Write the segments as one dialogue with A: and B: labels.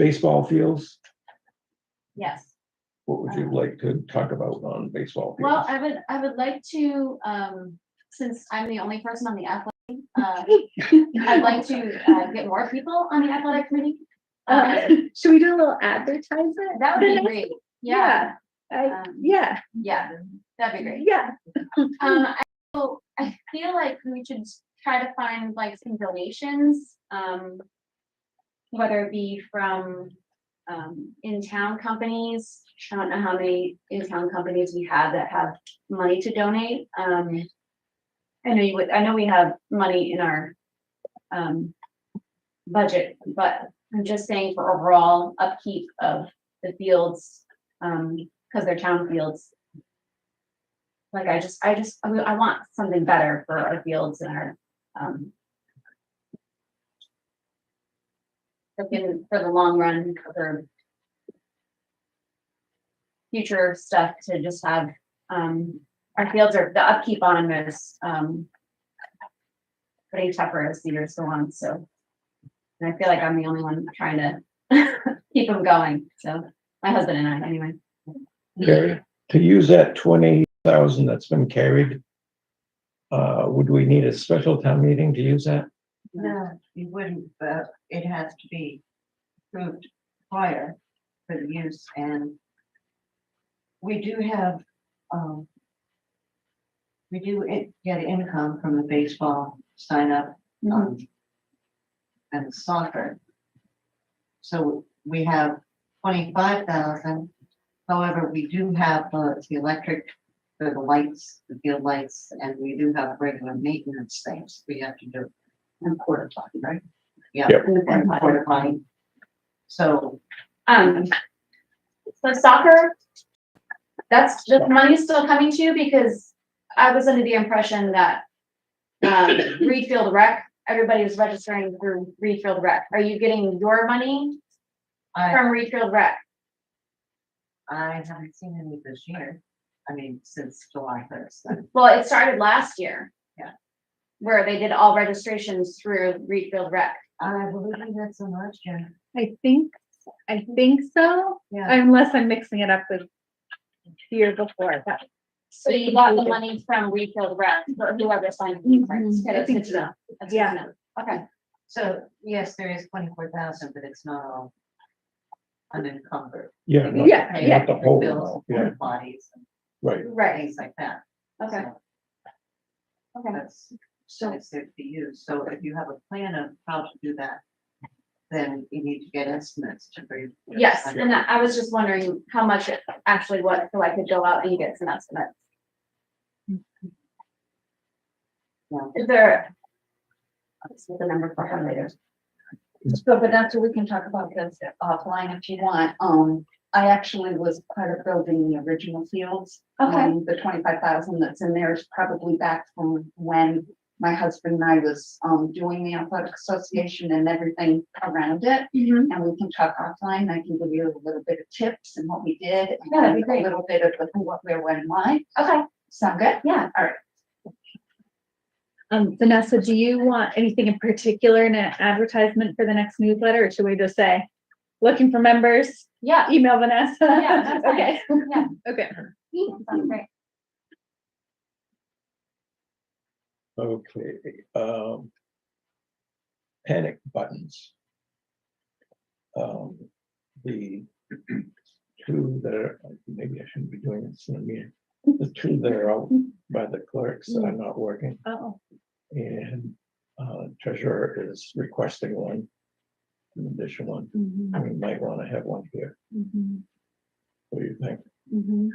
A: baseball fields,
B: Yes.
A: what would you like to talk about on baseball?
B: Um, Well,
A: fields?
B: I would, I would like to, um, since I'm the only person on the athletic, uh, I'd like to, uh, get more people on the athletic committee. Uh,
C: Uh, Should we do a little advertisement?
B: that would be great. Yeah,
C: I,
B: Um,
C: Uh, yeah,
B: yeah, that'd be great.
C: yeah.
B: Um, I, feel- I feel like we should try to find like some donations, um. Whether it be from, um, in-town companies, I don't know how many in-town companies we have that have money to donate, um. I know you would, I know we have money in our, um, budget, but I'm just saying for overall upkeep of the fields, um, cause they're town fields, like I just, I just, I, I want something better for our fields and our, um. Looking for the long run, for. Future stuff to just have, um, our fields are, the upkeep on them is, um. Pretty tougher as the years go on, so. And I feel like I'm the only one trying to keep them going, so, my husband and I, anyway.
A: Carrie, to use that twenty thousand that's been carried, uh, would we need a special town meeting to use that?
D: No, you wouldn't, but it has to be approved prior for the use and we do have, um, we do i- get income from the baseball sign up um, and soccer. So we have twenty-five thousand. However, we do have the the electric, for the lights, the field lights, and we do have regular maintenance things we have to do. And quarter potty, right? Yeah.
A: Yep.
D: And quarter potty. So
B: Um, so soccer, that's, the money's still coming to you because I was under the impression that um, Reed Field Rec, everybody was registering through Reed Field Rec. Are you getting your money
D: I,
B: from Reed Field Rec?
D: I haven't seen any this year. I mean, since July first.
B: Well, it started last year.
D: Yeah.
B: Where they did all registrations through Reed Field Rec.
D: I believe that's a last year.
C: I think, I think so,
D: Yeah.
C: unless I'm mixing it up with the year before, but
B: So you got the money from Reed Field Rec, or whoever signed the contracts.
C: Mhm, I
B: Okay, that's
C: think
B: good to know. That's good to
C: Yeah.
B: know. Okay,
D: So, yes, there is twenty-four thousand, but it's not all unencumbered.
A: Yeah,
D: We
A: no,
C: Yeah,
D: pay
A: yeah. The
D: for
A: whole
D: bills,
A: amount,
D: for
A: yeah.
D: Bodies
A: right.
D: and
B: right,
D: things like that.
B: okay,
D: So
B: okay.
D: That's,
B: So
D: that's there to use. So if you have a plan of how to do that, then you need to get estimates to bring.
B: Yes, and I I was just wondering how much it actually was, so I could go out and get some estimates.
D: Yeah.
B: Is there? Let's get the number for her later.
E: So, but that's what we can talk about this offline if you want. Um, I actually was part of building the original fields. Um, The twenty-five thousand that's in there is probably back from when my husband and I was, um, doing the athletic association and everything around it.
B: Mhm.
E: And we can talk offline. I can give you a little bit of tips and what we did. and
B: Yeah, that'd be great.
E: A little bit of the who, what, where, when, why.
B: Okay,
E: Sound good?
B: yeah,
C: Um, Vanessa, do you want anything in particular in an advertisement for the next newsletter, or should we just say, looking for members,
B: yeah,
C: email Vanessa?
B: Yeah, that's fine.
C: Okay,
B: yeah,
C: okay.
B: sounds great.
A: Okay, um. Panic buttons. Um, the two that are, maybe I shouldn't be doing this in a meeting. The two that are out by the clerks that are not working
C: Oh,
A: and uh treasurer is requesting one. An additional one,
C: mhm,
A: we might want to have one here.
C: mhm,
A: What do you think?
C: mhm.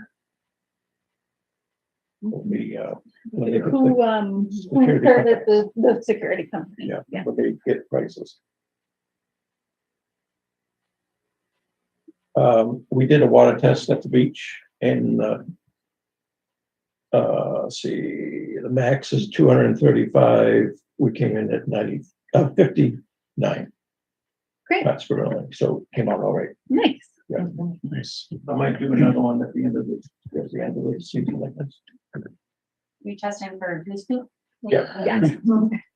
A: Will
C: mm-hmm.
A: be uh. when they get the-
C: Who, um, who
A: Security
C: started the, the security company?
A: Yeah, but they get prices. Um, we did a water test at the beach and, uh, uh, see, the max is two hundred and thirty-five. We came in at ninety, uh, fifty-nine.
C: Great.
A: That's for, only- so came out all right.
C: Nice.
A: Yeah. Nice. I might do another one at the end of the, at the end of the season like this.
B: You testing for goose poop?
A: Yeah.
C: Yes.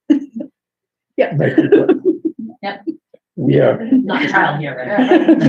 A: Make it-
B: Yep.
F: we are
E: not child here, right?